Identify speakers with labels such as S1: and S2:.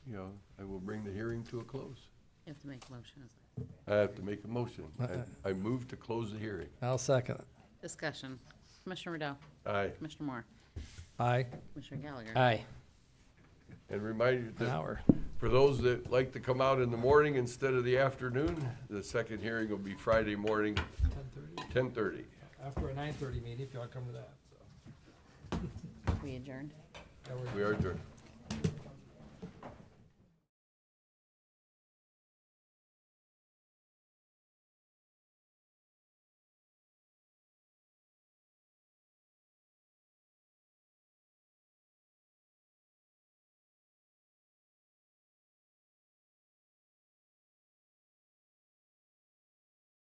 S1: you know, I will bring the hearing to a close.
S2: You have to make motions.
S1: I have to make a motion.
S3: Uh-uh.
S1: I- I move to close the hearing.
S3: I'll second it.
S2: Discussion. Commissioner Riddell.
S1: Aye.
S2: Commissioner Moore.
S3: Aye.
S2: Commissioner Gallagher.
S4: Aye.
S1: And remind you
S3: An
S1: that
S3: hour.
S1: for those that like to come out in the morning instead of the afternoon, the second hearing will be Friday morning,
S5: Ten thirty,
S1: ten thirty.
S5: after a nine thirty meeting, if y'all come to that, so.
S2: We adjourned.
S5: that works.
S1: We are adjourned.